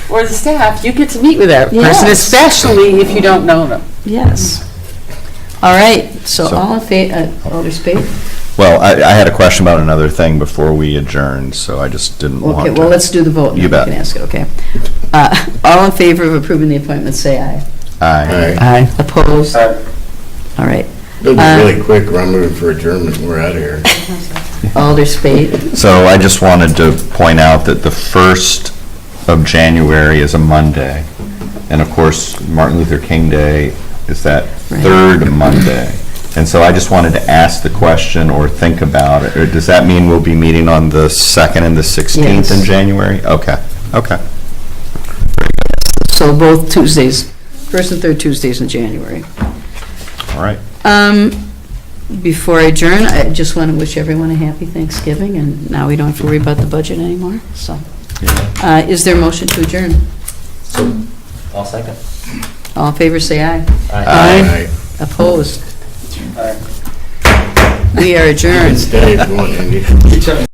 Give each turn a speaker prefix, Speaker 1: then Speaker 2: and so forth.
Speaker 1: or the staff, you get to meet with that person,
Speaker 2: Yes.
Speaker 1: especially if you don't know them.
Speaker 2: Yes. All right, so
Speaker 3: So-
Speaker 2: all in favor, Alder Spade?
Speaker 3: Well, I, I had a question about another thing before we adjourned, so I just didn't want
Speaker 2: Okay,
Speaker 3: to.
Speaker 2: well, let's do the vote. and
Speaker 3: You
Speaker 2: then
Speaker 3: bet.
Speaker 2: We can ask it, okay. Uh, All in favor of approving the appointment, say aye.
Speaker 3: Aye.
Speaker 1: Aye.
Speaker 2: Opposed?
Speaker 4: Aye.
Speaker 2: All right.
Speaker 5: It'll
Speaker 2: Uh,
Speaker 5: be really quick, or I'm moving for adjournment, we're out of here.
Speaker 2: Alder Spade?
Speaker 3: So I just wanted to point out that the 1st of January is a Monday, and of course, Martin Luther King Day is that
Speaker 2: Right.
Speaker 3: third Monday. And so I just wanted to ask the question or think about it, or does that mean we'll be meeting on the 2nd and the 16th in
Speaker 2: Yes.
Speaker 3: January? Okay, okay.
Speaker 2: So both Tuesdays, first and third Tuesdays in January.
Speaker 3: All right.
Speaker 2: Um, Before I adjourn, I just want to wish everyone a happy Thanksgiving, and now we don't have to worry about the budget anymore, so. Uh, Is there a motion to adjourn?
Speaker 4: I'll second.
Speaker 2: All in favor, say aye.
Speaker 5: Aye.
Speaker 2: Opposed?
Speaker 4: Aye.
Speaker 2: We are adjourned.
Speaker 5: Stay if you want, Andy.